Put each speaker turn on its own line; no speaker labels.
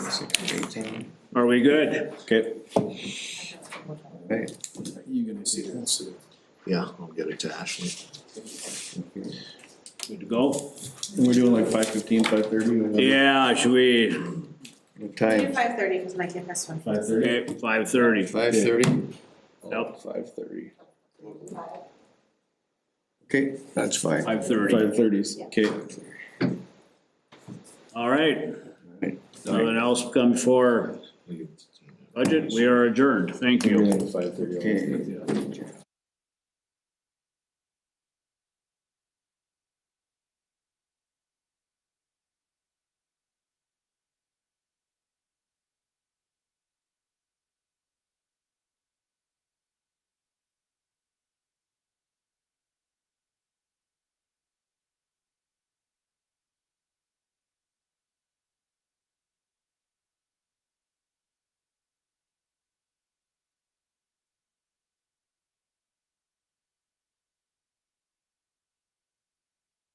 six, eighteen.
Are we good?
Okay.
You're gonna see that soon.
Yeah, I'll get it to Ashley.
Good to go?
We're doing like five fifteen, five thirty?
Yeah, should we,
Time?
Five thirty, because my kid has one.
Five thirty?
okay, five thirty,
Five thirty?
Yep.
Five thirty. Okay, that's fine.
five thirty.
thirties. Okay.
All right, nothing else come for budget, we are adjourned, thank you.
Okay.